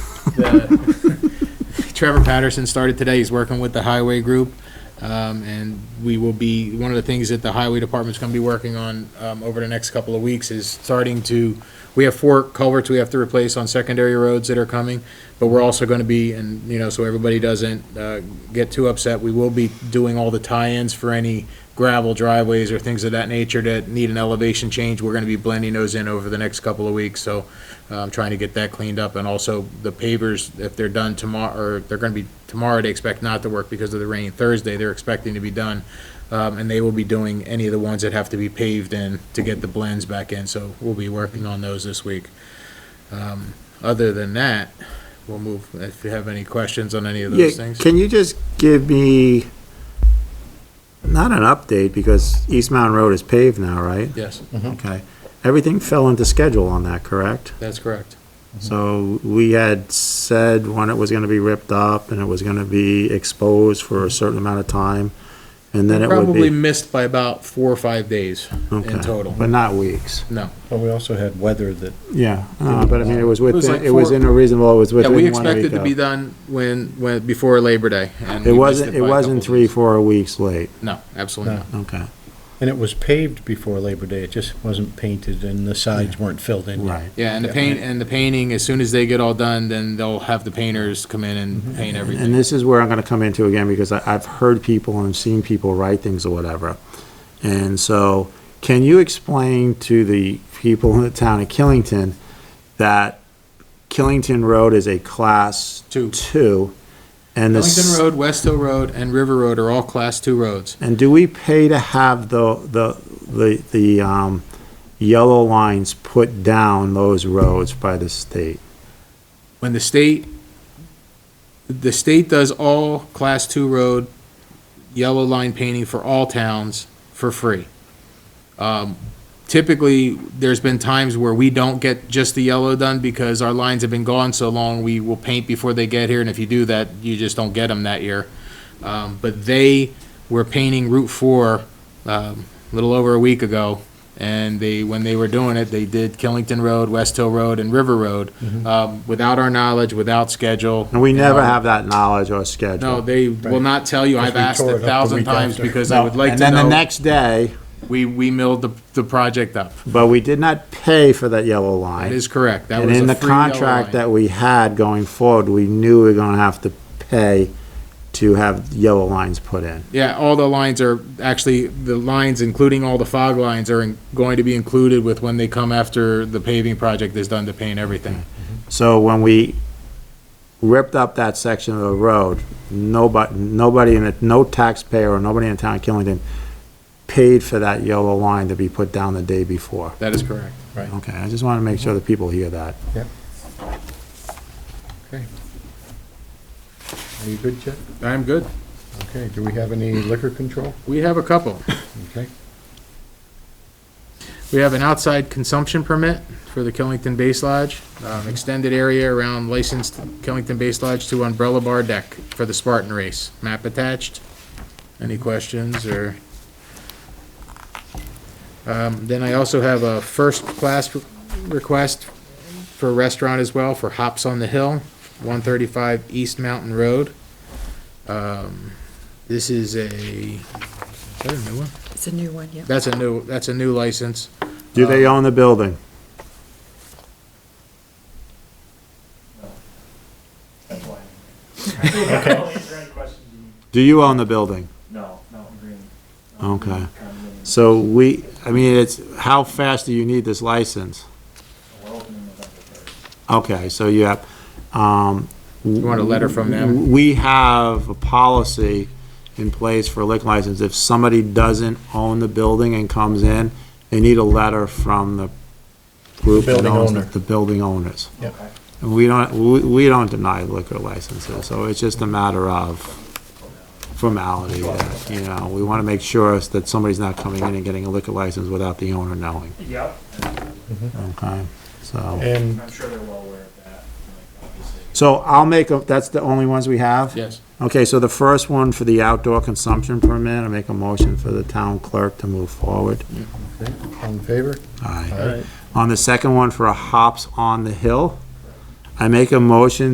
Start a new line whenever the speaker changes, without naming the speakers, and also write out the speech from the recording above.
the, Trevor Patterson started today. He's working with the highway group. Um, and we will be, one of the things that the highway department's gonna be working on, um, over the next couple of weeks is starting to, we have four culverts we have to replace on secondary roads that are coming, but we're also gonna be, and, you know, so everybody doesn't, uh, get too upset, we will be doing all the tie-ins for any gravel driveways or things of that nature that need an elevation change. We're gonna be blending those in over the next couple of weeks, so, um, trying to get that cleaned up, and also the pavers, if they're done tomorrow, or they're gonna be, tomorrow, they expect not to work because of the rain. Thursday, they're expecting to be done, um, and they will be doing any of the ones that have to be paved in to get the blends back in, so we'll be working on those this week. Um, Other than that, we'll move, if you have any questions on any of
Yeah,
those things.
can you just give me, not an update, because East Mountain Road is paved now, right?
Yes,
Okay. Everything fell into schedule on that, correct?
that's correct.
So we had said when it was gonna be ripped up and it was gonna be exposed for a certain amount of time, and then it would
Mm-hmm. Probably
be.
missed by about four or five days
Okay,
in total,
But not weeks.
no.
But we also had weather that,
Yeah, uh, but I mean, it was
was like
within, it was
four-
in a reasonable, it was
Yeah,
within one
we
week
expected to
of-
be done when, when, before Labor Day. and
It
we missed
wasn't, it
by a
wasn't
couple
three,
days.
four weeks late.
No, absolutely not.
Okay,
and it was paved before Labor Day, it just wasn't painted and the sides weren't filled in. yet.
right.
Yeah, and the paint, and the painting, as soon as they get all done, then they'll have the painters come in Mm-hmm. and paint
And
everything.
this is where I'm gonna come into again, because I, I've heard people and seen people write things or whatever. And so, can you explain to the people in the town of Killington that Killington Road is a class
Two.
two? And the,
Ellington
s-
Road, West Hill Road, and River Road are all class two roads.
and do we pay to have the, the, the, the, um, yellow lines put down those roads by the state?
When the state, the state does all class two road, yellow line painting for all towns for free. Um, Typically, there's been times where we don't get just the yellow done because our lines have been gone so long, we will paint before they get here, and if you do that, you just don't get them that year. Um, But they were painting Route 4 um, a little over a week ago, and they, when they were doing it, they did Killington Road, West Hill Road, and River Road, um, without our knowledge, without schedule.
Mm-hmm. And we never
Um,
have that knowledge or schedule.
No, they will
Right.
not tell you.
Because
I've
we
asked
tore it
a
up the
thousand
week
times
after.
because I would like
And
to
then the
know,
next day,
we, we milled the, the project up.
but we did not pay for that yellow line.
That is correct. That
And
was
in
a
the
free yellow
contract
line.
that we had going forward, we knew we were gonna have to pay to have yellow lines put in.
Yeah, all the lines are, actually, the lines, including all the fog lines, are in- going to be included with when they come after the paving project is done to paint everything.
So when we ripped up that section of the road, nobody, nobody in it, no taxpayer or nobody in the town of Killington paid for that yellow line to be put down the day before.
That is correct. Right.
Okay, I just wanna make sure that people hear that.
Are you good, Chip?
I'm good.
Okay, do we have any liquor control?
We have a couple.
Okay.
We have an outside consumption permit for the Killington Base Lodge, um, extended area around licensed Killington Base Lodge to umbrella bar deck for the Spartan race. Map attached. Any questions or? Um, then I also have a first-class re- request for a restaurant as well, for Hops on the Hill, one thirty-five East Mountain Road. Um, this is a, is that a new one?
It's a new one, yeah.
That's a new, that's a new license.
Do they
Um,
own the building?
That's why. Grand question, do you-
Do you own the building?
No, Mountain Green.
Okay.
Condominium.
So we, I mean, it's, how fast do you need this license?
We're opening November first.
Okay, so you have, um. You
want a letter from them?
We have a policy in place for a liquor license. If somebody doesn't own the building and comes in, they need a letter from the group that
Building
owns
owner.
it, the building owners.
Yep.
Okay.
And we don't, we, we don't deny liquor licenses, so it's just a matter of formality, that, you know, we wanna make sure that somebody's not coming in and getting a liquor license without the owner knowing,
Yep.
okay? So,
And
I'm sure they're well aware of that, like, obviously.
so I'll make, a that's the only ones we have?
Yes.
Okay, so the first one for the outdoor consumption permit, I make a motion for the town clerk to move forward.
Okay, All in favor?
Aye.
Aye.
On the second one for a hops on the hill, I make a motion